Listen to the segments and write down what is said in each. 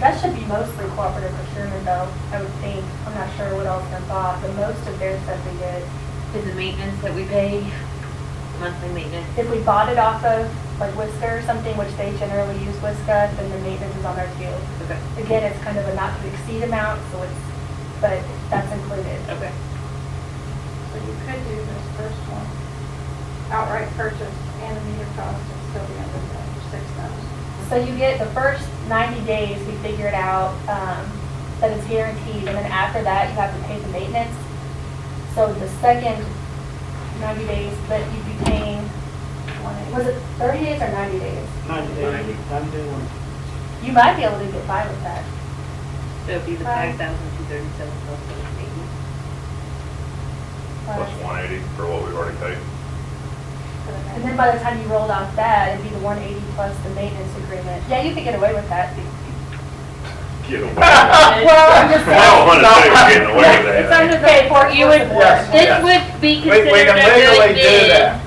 That should be mostly cooperative procurement though, I would think. I'm not sure what else they're bought, but most of their stuff we did. Is the maintenance that we pay, monthly maintenance? If we bought it off of like Whisker or something, which they generally use Whiska, then the maintenance is on there too. Okay, Again, it's kind of a not to exceed amount, so it's, but that's included. okay. So you could do this first one, outright purchase and the meter cost and still be under the six thousand. So you get the first 90 days, we figure it out, um, that it's guaranteed, and then after that, you have to pay the maintenance. So the second 90 days, but you'd be paying, was it 30 days or 90 days? Ninety Ninety. day, ninety day one. You might be able to get by with that. So it'd be the Right. five thousand two thirty-seven plus the maintenance. plus Uh, one eighty for what we've already paid. And then by the time you rolled off that, it'd be the 180 plus the maintenance agreement. Yeah, you could get away with that. Get away. Well, I'm just I don't wanna say we're getting away with It's under that. the paperwork. You would- This Oh, Yes. would be We, we considered can a legally good do bid, that.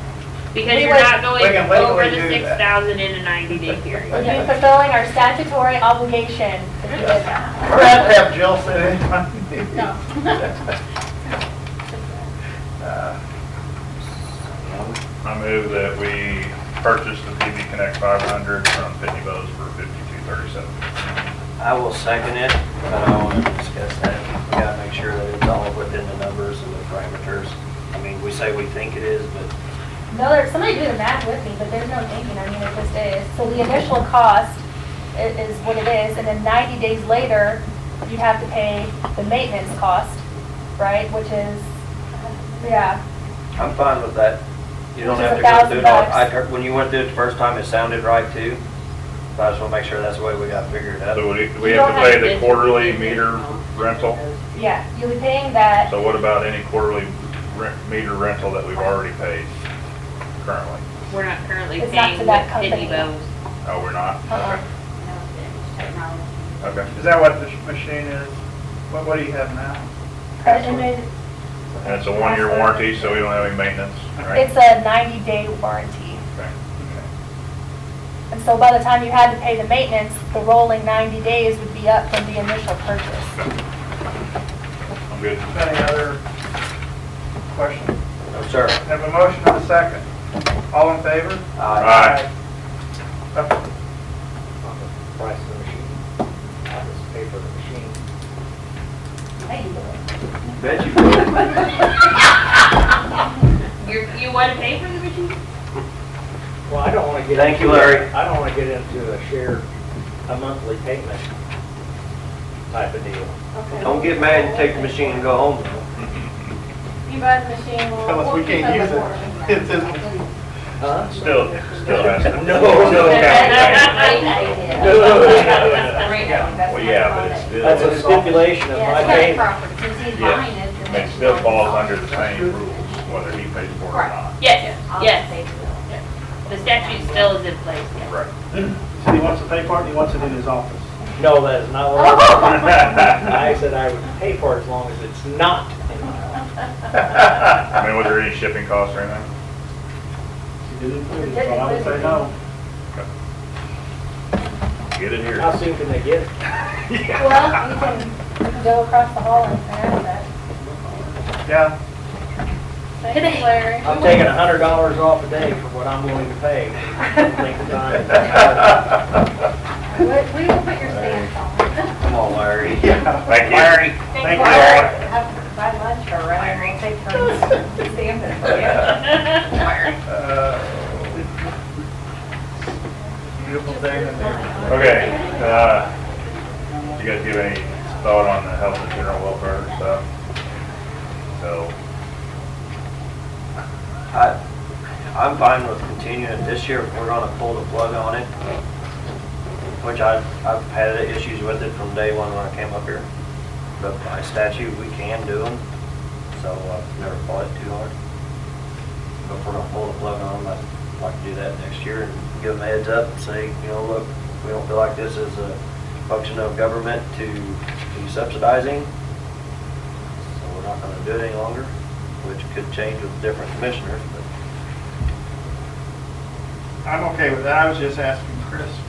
because We you're would- not going we can legally over the do six that. thousand in a ninety-day period. You'd be fulfilling our statutory obligation if you did that. We're gonna have Jill sit in. No. Uh, I move that we purchase the PB Connect five hundred from Pitney Bowes for fifty-two thirty-seven. I will second it, but I want to discuss that. We gotta make sure that it's all within the numbers and the parameters. I mean, we say we think it is, but No, there's somebody do the math with me, but there's no thinking, I mean, it just is. So the initial cost i- is what it is, and then 90 days later, you have to pay the maintenance cost, right, which is, yeah, I'm fine with that. You don't Which is have to go through it all. $1,000. I heard, when you went through it the first time, it sounded right too. But I just want to make sure that's the way we got figured out. So we, we You have to don't pay bid the for quarterly maintenance meter cost. rental. yeah, you'll be paying that, So what about any quarterly rent, meter rental that we've already paid currently? We're not currently It's not paying to with that company. Pitney Bowes. Oh, we're not? Uh-uh. Okay. Technology. Okay. Is that what this machine is? What, what do you have now? and then And it's a one-year warranty, so we don't have any maintenance, right? it's a 90-day warranty. Okay. And so by the time you had to pay the maintenance, the rolling 90 days would be up from the initial purchase. I'm good. Any other questions? No, sir. Have a motion and a second. All in favor? Uh, Aye. Aye. on the price of the machine, on this paper machine. Hey, you know. Bet you will. You're, you wanna pay for the machine? Well, I don't want to get. Thank you, into- Larry. I don't want to get into a share, a monthly payment type of deal. Okay. Don't get mad and take the machine and go home. though. You buy the machine, we'll. Tell us we we'll keep can't use up with it. It's his- Huh? Still, still has to. No, no, no. Well, yeah, but it's still. That's a stipulation of my payment. Yes, I mean, it still falls under the same rules, whether he pays for it or not. Yes, yes. The statute still is in place, yes. Right. So he wants to pay for it, and he wants it in his office. No, that is not what Oh. I I said I would pay for it as long as it's not in my office. I mean, was there any shipping costs or anything? He did include it, so I would say no. Get it here. How soon can they get it? Well, you can, you can go across the hall and ask that. Yeah, Thanks, Larry. I'm taking a hundred dollars off a day for what I'm willing to pay. Think the time. We we will put your stamp on. Come on, Larry. yeah. Thank you. Thank you, Larry. buy lunch or whatever, and take turns stamping for you. Beautiful day in there. Okay, uh, you guys give any thought on the health and general welfare stuff? So, I, I'm fine with continuing this year. We're gonna pull the plug on it, which I, I've had issues with it from day one when I came up here. But by statute, we can do them, so I've never fought it too hard. But if we're gonna pull the plug on them, I'd like to do that next year and give them a heads up and say, you know, look, we don't feel like this is a function of government to be subsidizing. So we're not gonna do it any longer, which could change with different commissioners, but I'm okay with that. I was just asking Chris